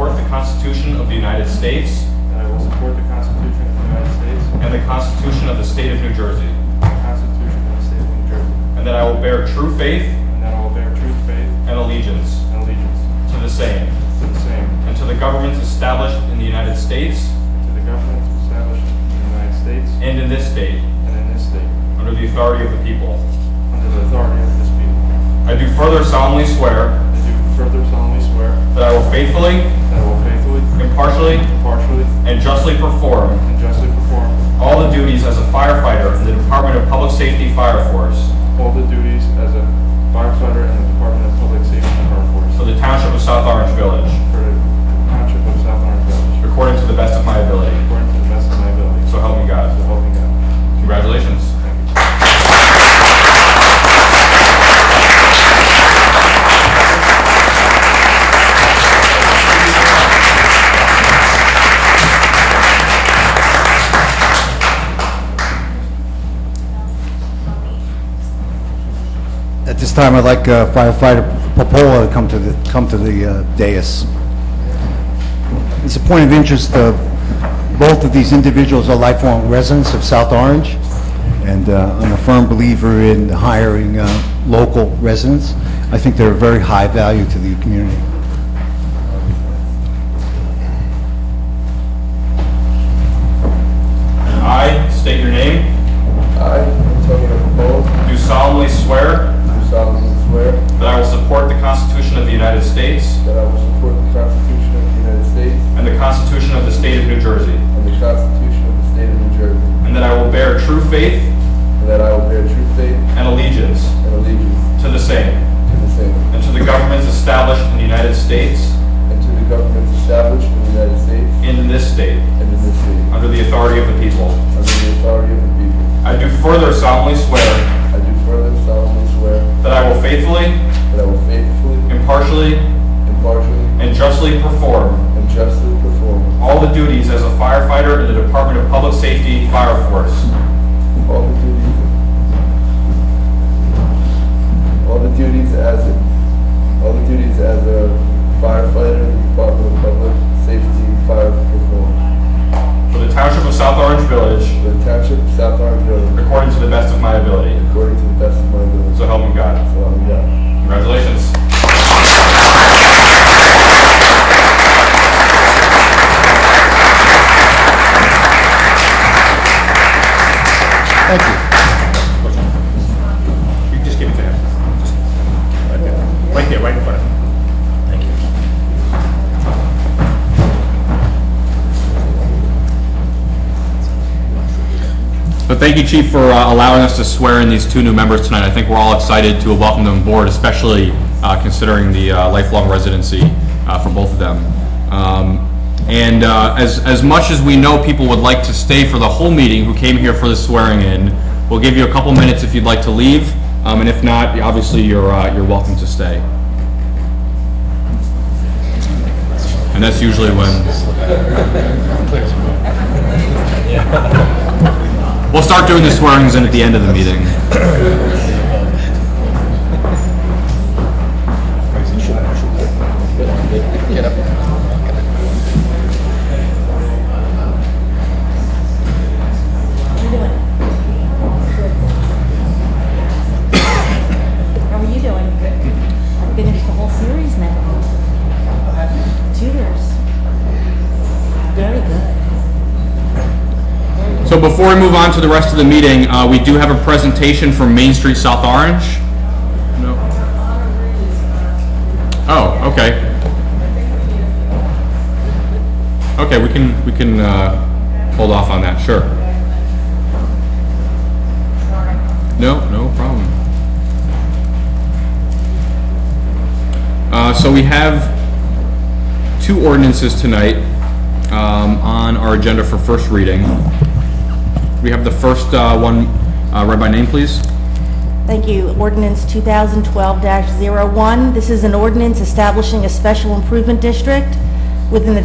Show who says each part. Speaker 1: Constitution of the United States
Speaker 2: that I will support the Constitution of the United States
Speaker 1: and the Constitution of the State of New Jersey,
Speaker 2: and the Constitution of the State of New Jersey,
Speaker 1: and that I will bear true faith
Speaker 2: and that I will bear true faith
Speaker 1: and allegiance
Speaker 2: and allegiance
Speaker 1: to the same
Speaker 2: to the same,
Speaker 1: and to the governments established in the United States
Speaker 2: and to the governments established in the United States
Speaker 1: and in this state
Speaker 2: and in this state,
Speaker 1: under the authority of the people.
Speaker 2: under the authority of this people.
Speaker 1: I do further solemnly swear
Speaker 2: I do further solemnly swear
Speaker 1: that I will faithfully,
Speaker 2: that I will faithfully,
Speaker 1: impartially,
Speaker 2: impartially,
Speaker 1: and justly perform
Speaker 2: and justly perform
Speaker 1: all the duties as a firefighter in the Department of Public Safety Fire Force
Speaker 2: all the duties as a firefighter in the Department of Public Safety and Fire Force
Speaker 1: for the Township of South Orange Village,
Speaker 2: for the Township of South Orange Village,
Speaker 1: according to the best of my ability.
Speaker 2: according to the best of my ability.
Speaker 1: So help me
Speaker 2: So
Speaker 1: God.
Speaker 2: help me God.
Speaker 1: Congratulations.
Speaker 2: Thank you.
Speaker 3: At this time, I'd like uh, firefighter Popola to come to the, come to the uh, dais. It's a point of interest, uh, both of these individuals are lifelong residents of South Orange, and uh, I'm a firm believer in hiring uh, local residents. I think they're of very high value to the community.
Speaker 1: I state your name,
Speaker 4: I, Antonio Capone,
Speaker 1: do solemnly swear
Speaker 4: do solemnly swear
Speaker 1: that I will support the Constitution of the United States
Speaker 4: that I will support the Constitution of the United States
Speaker 1: and the Constitution of the State of New Jersey,
Speaker 4: and the Constitution of the State of New Jersey,
Speaker 1: and that I will bear true faith
Speaker 4: and that I will bear true faith
Speaker 1: and allegiance
Speaker 4: and allegiance
Speaker 1: to the same
Speaker 4: to the same,
Speaker 1: and to the governments established in the United States
Speaker 4: and to the governments established in the United States
Speaker 1: and in this state
Speaker 4: and in this state,
Speaker 1: under the authority of the people.
Speaker 4: under the authority of the people.
Speaker 1: I do further solemnly swear
Speaker 4: I do further solemnly swear
Speaker 1: that I will faithfully,
Speaker 4: that I will faithfully,
Speaker 1: impartially,
Speaker 4: impartially,
Speaker 1: and justly perform
Speaker 4: and justly perform
Speaker 1: all the duties as a firefighter in the Department of Public Safety Fire Force
Speaker 4: all the duties, all the duties as, a- all the duties as a firefighter in the Department of Public Safety Fire Perform
Speaker 1: for the Township of South Orange Village
Speaker 4: for the Township of South Orange Village
Speaker 1: according to the best of my ability.
Speaker 4: according to the best of my ability.
Speaker 1: So help me God.
Speaker 4: So help me God.
Speaker 1: Congratulations.
Speaker 3: Thank you.
Speaker 1: You just give it to him. Just- right there. Right there, right in front of him. Thank you. But thank you, Chief, for uh, allowing us to swear in these two new members tonight. I think we're all excited to welcome them aboard, especially uh, considering the uh, lifelong residency uh, for both of them. Um, And uh, as, as much as we know people would like to stay for the whole meeting who came here for the swearing-in, we'll give you a couple minutes if you'd like to leave, Um, and if not, obviously, you're, uh, you're welcome to stay. And that's usually when... We'll start doing the swearings in at the end of the meeting.
Speaker 5: How are you doing? Good. I finished the whole series now. Tutors. Very good.
Speaker 1: So before we move on to the rest of the meeting, uh, we do have a presentation from Main Street South Orange. No. Oh, okay. Okay, we can, we can uh, hold off on that, sure. No, no problem. Uh, So we have two ordinances tonight um, on our agenda for first reading. We have the first uh, one uh, read by name, please.
Speaker 5: Thank you. Ordinance 2012-01. This is an ordinance establishing a special improvement district within the